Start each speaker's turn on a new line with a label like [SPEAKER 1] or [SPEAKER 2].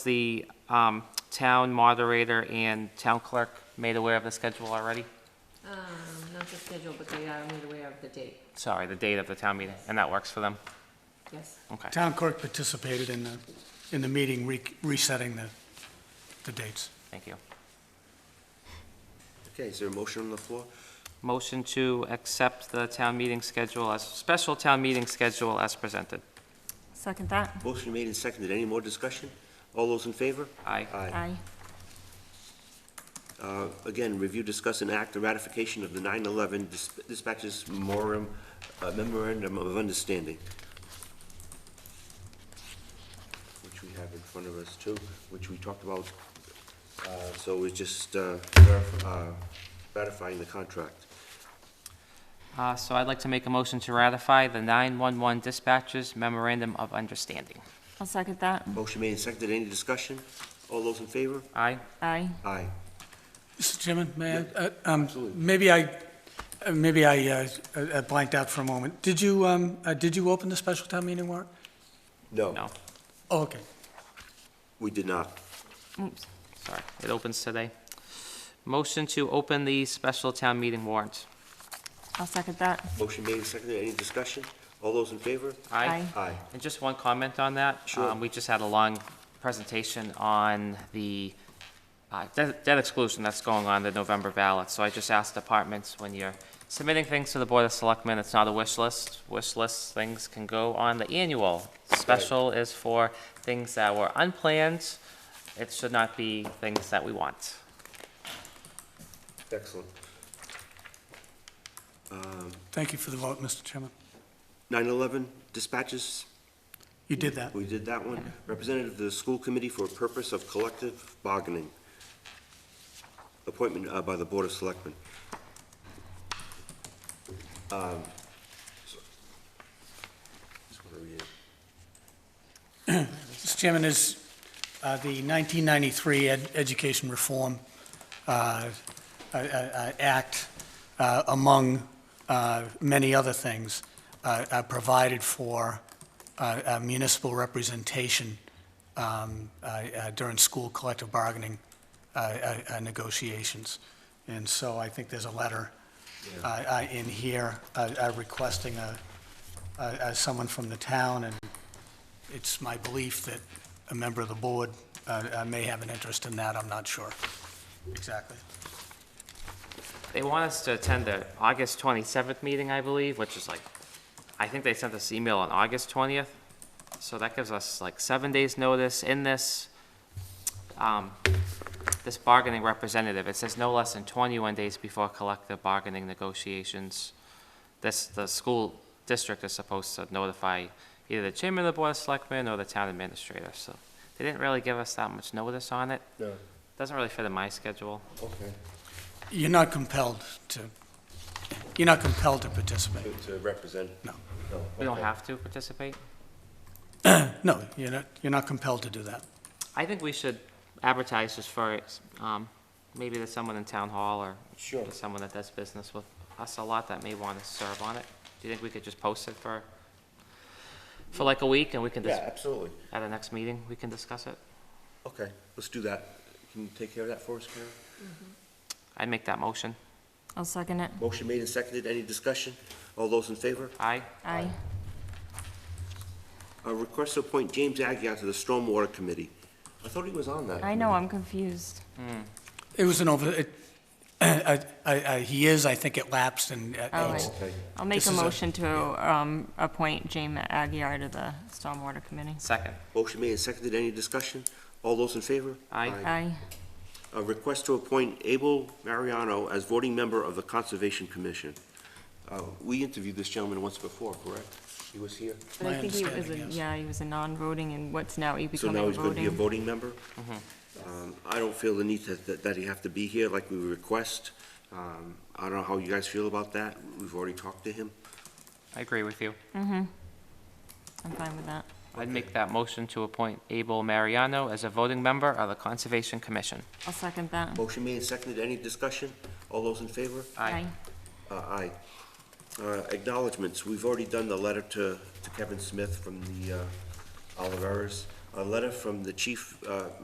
[SPEAKER 1] The um, town moderator and town clerk made aware of the schedule already?
[SPEAKER 2] Um, not the schedule, but they are made aware of the date,
[SPEAKER 1] Sorry, the date of the town meeting, and that works for them?
[SPEAKER 2] yes.
[SPEAKER 1] Okay.
[SPEAKER 3] Town clerk participated in the, in the meeting re- resetting the, the dates.
[SPEAKER 1] Thank you.
[SPEAKER 4] Okay, is there a motion on the floor?
[SPEAKER 1] Motion to accept the town meeting schedule as, special town meeting schedule as presented.
[SPEAKER 5] Second that.
[SPEAKER 4] Motion made and seconded. Any more discussion? All those in favor?
[SPEAKER 1] Aye.
[SPEAKER 5] Aye.
[SPEAKER 4] Uh, Again, review, discuss, and act the ratification of the 9/11 dis- dispatches memorandum uh, memorandum of understanding, which we have in front of us too, which we talked about. Uh, So we're just uh, verif- uh, ratifying the contract.
[SPEAKER 1] Uh, So I'd like to make a motion to ratify the 911 dispatchers memorandum of understanding.
[SPEAKER 5] I'll second that.
[SPEAKER 4] Motion made and seconded. Any discussion? All those in favor?
[SPEAKER 1] Aye?
[SPEAKER 5] Aye.
[SPEAKER 4] Aye.
[SPEAKER 3] Mr. Chairman, may I, uh, um, maybe I, uh, maybe I uh, uh, blanked out for a moment. Did you, um, uh, did you open the special town meeting warrant?
[SPEAKER 1] No,
[SPEAKER 3] Oh, okay.
[SPEAKER 4] We did not.
[SPEAKER 5] Oops.
[SPEAKER 1] sorry. It opens today. Motion to open the special town meeting warrant.
[SPEAKER 5] I'll second that.
[SPEAKER 4] Motion made and seconded. Any discussion? All those in favor?
[SPEAKER 5] Aye.
[SPEAKER 4] Aye.
[SPEAKER 1] And just one comment on that.
[SPEAKER 4] Sure.
[SPEAKER 1] Um, We just had a long presentation on the uh, de- debt exclusion that's going on the November ballot. So I just asked departments, when you're submitting things to the Board of Selectmen, it's not a wish list. Wish list things can go on the annual. Special is for things that were unplanned. It should not be things that we want.
[SPEAKER 4] Excellent.
[SPEAKER 3] Thank you for the vote, Mr. Chairman.
[SPEAKER 4] 9/11 dispatches,
[SPEAKER 3] You did that.
[SPEAKER 4] we did that one. Representative of the school committee for purpose of collective bargaining. Appointment uh, by the Board of Selectmen. Um, so- just wanna read it.
[SPEAKER 3] Mr. Chairman, is uh, the 1993 Ed- Education Reform uh, uh, uh, Act, uh, among uh, many other things, uh, uh, provided for uh, uh, municipal representation um, uh, uh, during school collective bargaining uh, uh, uh, negotiations. And so I think there's a letter uh, uh, in here uh, uh, requesting a- a- a- someone from the town and it's my belief that a member of the board uh, uh, may have an interest in that, I'm not sure exactly.
[SPEAKER 1] They want us to attend the August 27th meeting, I believe, which is like, I think they sent us email on August 20th. So that gives us like seven days' notice in this, um, this bargaining representative. It says no less than 21 days before collective bargaining negotiations. This, the school district is supposed to notify either the chairman of the board of selectmen or the town administrator. So they didn't really give us that much notice on it.
[SPEAKER 4] No,
[SPEAKER 1] Doesn't really fit in my schedule.
[SPEAKER 4] okay.
[SPEAKER 3] You're not compelled to, you're not compelled to participate,
[SPEAKER 4] To- To represent?
[SPEAKER 3] no.
[SPEAKER 4] No.
[SPEAKER 1] We don't have to participate.
[SPEAKER 3] No, you're not, you're not compelled to do that.
[SPEAKER 1] I think we should advertise just for, um, maybe there's someone in town hall or
[SPEAKER 4] Sure.
[SPEAKER 1] there's someone that does business with us a lot that may want to serve on it. Do you think we could just post it for, for like a week and we can, dis-
[SPEAKER 4] Yeah,
[SPEAKER 1] at
[SPEAKER 4] absolutely.
[SPEAKER 1] the next meeting, we can discuss it?
[SPEAKER 4] Okay, let's do that. Can you take care of that for us, Karen?
[SPEAKER 1] I'd make that motion.
[SPEAKER 5] I'll second it.
[SPEAKER 4] Motion made and seconded. Any discussion? All those in favor?
[SPEAKER 1] Aye?
[SPEAKER 5] Aye.
[SPEAKER 4] A request to appoint James Agia to the Stormwater Committee. I thought he was on that.
[SPEAKER 5] I know, I'm confused.
[SPEAKER 3] It was an over, it- I, I, I- he is, I think it lapsed and. uh,
[SPEAKER 5] Oh,
[SPEAKER 3] it's-
[SPEAKER 5] right.
[SPEAKER 4] Okay.
[SPEAKER 5] I'll make
[SPEAKER 3] This
[SPEAKER 5] a
[SPEAKER 3] is a-
[SPEAKER 5] motion to um, appoint Jamie Aguirre to the Stormwater Committee.
[SPEAKER 1] Second.
[SPEAKER 4] Motion made and seconded. Any discussion? All those in favor?
[SPEAKER 1] Aye.
[SPEAKER 5] Aye.
[SPEAKER 4] A request to appoint Abel Mariano as voting member of the Conservation Commission. Uh, We interviewed this gentleman once before, correct? He was here.
[SPEAKER 5] But
[SPEAKER 3] My
[SPEAKER 5] I think he was, a-
[SPEAKER 3] understanding, yes.
[SPEAKER 5] yeah, he was a non-voting and what's now he
[SPEAKER 4] So
[SPEAKER 5] becoming
[SPEAKER 4] now
[SPEAKER 5] a
[SPEAKER 4] he's going to be a
[SPEAKER 5] voting. Mm-hmm.
[SPEAKER 4] voting member? Um, I don't feel the need that- that that he have to be here like we request. Um, I don't know how you guys feel about that. We've already talked to him.
[SPEAKER 1] I agree with you.
[SPEAKER 5] I'm fine with that.
[SPEAKER 1] I'd make that motion to appoint Abel Mariano as a voting member of the Conservation Commission.
[SPEAKER 5] I'll second that.
[SPEAKER 4] Motion made and seconded. Any discussion? All those in favor?
[SPEAKER 1] Aye.
[SPEAKER 4] Uh, Aye. Uh, Acknowledgements, we've already done the letter to to Kevin Smith from the uh, Oliveras. a letter from the chief uh,